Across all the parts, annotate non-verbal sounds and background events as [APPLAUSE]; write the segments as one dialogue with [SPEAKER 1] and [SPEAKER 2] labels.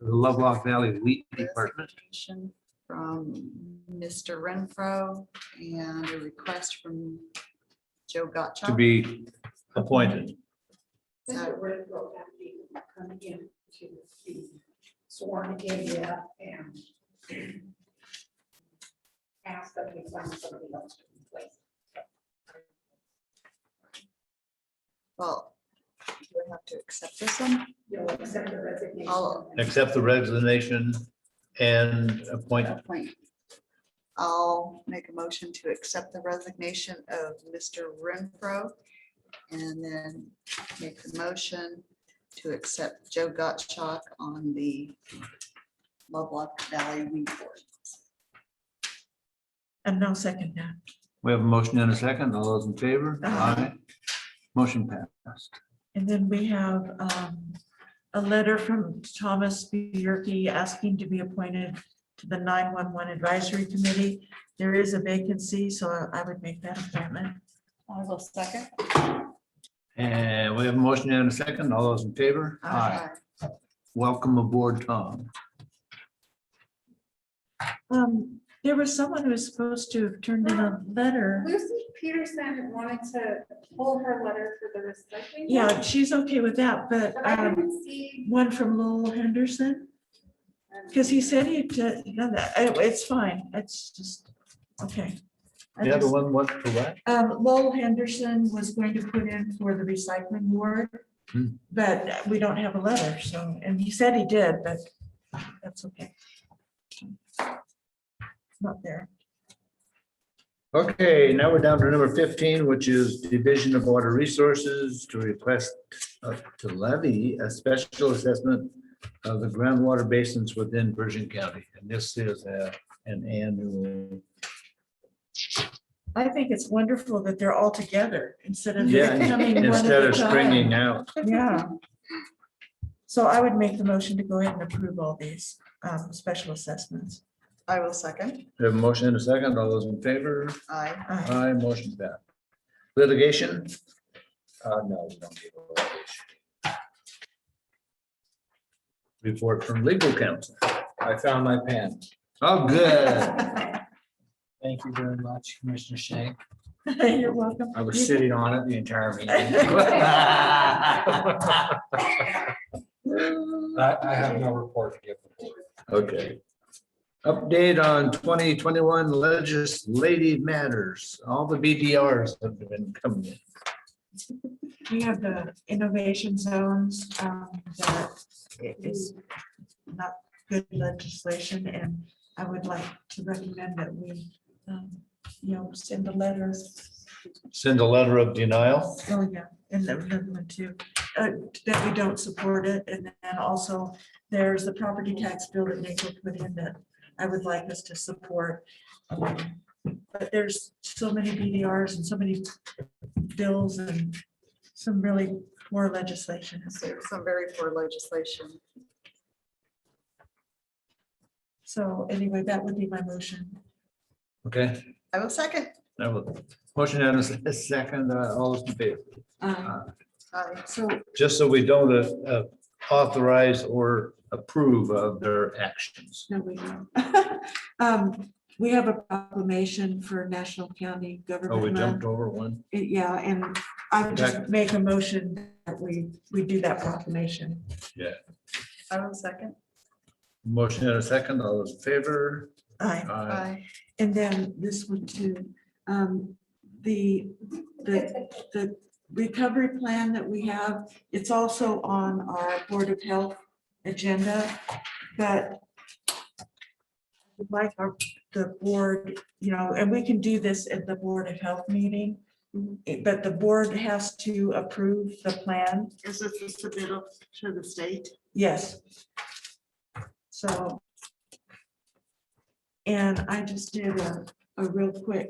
[SPEAKER 1] the Lovelock Valley Wheat Department.
[SPEAKER 2] Resignation From Mr. Renfro and a request from Joe Gottschalk.
[SPEAKER 1] to be appointed.
[SPEAKER 2] So-
[SPEAKER 3] Mr. Renfro have to come in to be sworn in yet and ask that we find somebody else to replace.
[SPEAKER 2] Well, do we have to accept this one?
[SPEAKER 3] You'll accept the resignation.
[SPEAKER 2] I'll-
[SPEAKER 1] Accept the resignation and appoint.
[SPEAKER 2] Appoint. I'll make a motion to accept the resignation of Mr. Renfro and then make the motion to accept Joe Gottschalk on the Lovelock Valley Weed Board.
[SPEAKER 4] And no second that.
[SPEAKER 1] We have a motion and a second. All those in favor? Aye.
[SPEAKER 4] Aye.
[SPEAKER 1] Motion passed.
[SPEAKER 4] And then we have um, a letter from Thomas Bierke asking to be appointed to the 911 Advisory Committee. There is a vacancy, so I would make that appointment.
[SPEAKER 2] I will second.
[SPEAKER 1] And we have a motion and a second. All those in favor? Welcome aboard, Tom.
[SPEAKER 4] Um, There was someone who was supposed to have turned in a letter.
[SPEAKER 3] Lucy Peterson wanted to pull her letter for the recycling.
[SPEAKER 4] Yeah, she's okay with that, but
[SPEAKER 3] But I
[SPEAKER 4] um,
[SPEAKER 3] didn't see. Um,
[SPEAKER 4] one from Lowell Henderson, because he said he, did- you know, that, it- it's fine. It's just, okay. I
[SPEAKER 1] The
[SPEAKER 4] just-
[SPEAKER 1] other one was for what?
[SPEAKER 4] Um, Lowell Henderson was going to put in for the recycling ward,
[SPEAKER 1] Hmm.
[SPEAKER 4] but we don't have a letter, so, and he said he did, but that's okay. It's Not there.
[SPEAKER 1] Okay, now we're down to number fifteen, which is Division of Water Resources to request uh, to levy a special assessment of the groundwater basins within Virgin County. And this is uh, an annual.
[SPEAKER 4] I think it's wonderful that they're all together instead of.
[SPEAKER 1] Yeah,
[SPEAKER 4] coming one at
[SPEAKER 1] Instead
[SPEAKER 4] a
[SPEAKER 1] of
[SPEAKER 4] time.
[SPEAKER 1] stringing out,
[SPEAKER 4] Yeah. So I would make the motion to go ahead and approve all these um, special assessments.
[SPEAKER 2] I will second.
[SPEAKER 1] We have a motion and a second, all those in favor,
[SPEAKER 2] Aye.
[SPEAKER 4] Uh, [LAUGHS]
[SPEAKER 1] aye, motion passed. Litigation? Uh, no, we don't need a litigation. Report from legal counsel.
[SPEAKER 5] I found my pen.
[SPEAKER 1] Oh, good.
[SPEAKER 5] Thank you very much, Commissioner Shank.
[SPEAKER 4] You're welcome.
[SPEAKER 5] I was sitting on it the entire meeting.
[SPEAKER 1] [LAUGHS]
[SPEAKER 5] I, I have no report to give.
[SPEAKER 1] Okay. Update on twenty twenty-one legislative matters. All the BDRs have been coming in.
[SPEAKER 4] We have the innovation zones, um, that i- is not good legislation, and I would like to recommend that we, um, you know, send a letter.
[SPEAKER 1] Send a letter of denial.
[SPEAKER 4] Oh, yeah, and the other one too, uh, that we don't support it, and then also there's the property tax bill that they put within that I would like us to support. Um, But there's so many BDRs and so many bills and some really poor legislation.
[SPEAKER 2] So Some very poor legislation.
[SPEAKER 4] So anyway, that would be my motion.
[SPEAKER 1] Okay.
[SPEAKER 2] I will second.
[SPEAKER 1] That was- Motion and a [LAUGHS] second, uh, all those in favor.
[SPEAKER 4] Um,
[SPEAKER 2] Aye.
[SPEAKER 4] So
[SPEAKER 1] Just so we don't uh, uh, authorize or approve of their actions.
[SPEAKER 4] No, we don't. [LAUGHS] Um, We have a proclamation for National County
[SPEAKER 1] Oh, we
[SPEAKER 4] Government Month.
[SPEAKER 1] jumped over one.
[SPEAKER 4] Uh, Yeah, and I
[SPEAKER 1] Okay.
[SPEAKER 4] just make a motion that we, we do that proclamation.
[SPEAKER 2] I will second.
[SPEAKER 1] Motion and a second, all those in favor.
[SPEAKER 4] Aye.
[SPEAKER 1] Aye.
[SPEAKER 2] Aye.
[SPEAKER 4] And then this one too, um, the, the, the recovery plan that we have, it's also on our Board of Health agenda, but we'd like our, the board, you know, and we can do this at the Board of Health meeting,
[SPEAKER 2] Mm-hmm.
[SPEAKER 4] eh, but the board has to approve the plan,
[SPEAKER 2] Is this a submittal to the state?
[SPEAKER 4] yes. So. And I just did a, a real quick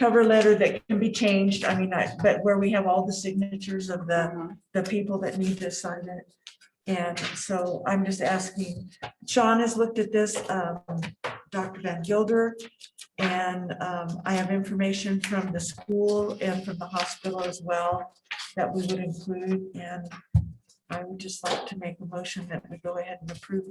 [SPEAKER 4] cover letter that can be changed. I mean, I, but where we have all the signatures of the, the people that need to sign it. And so I'm just asking, Sean has looked at this, um, Dr. Van Gilder. And um, I have information from the school and from the hospital as well that we would include. And I would just like to make a motion that we go ahead and approve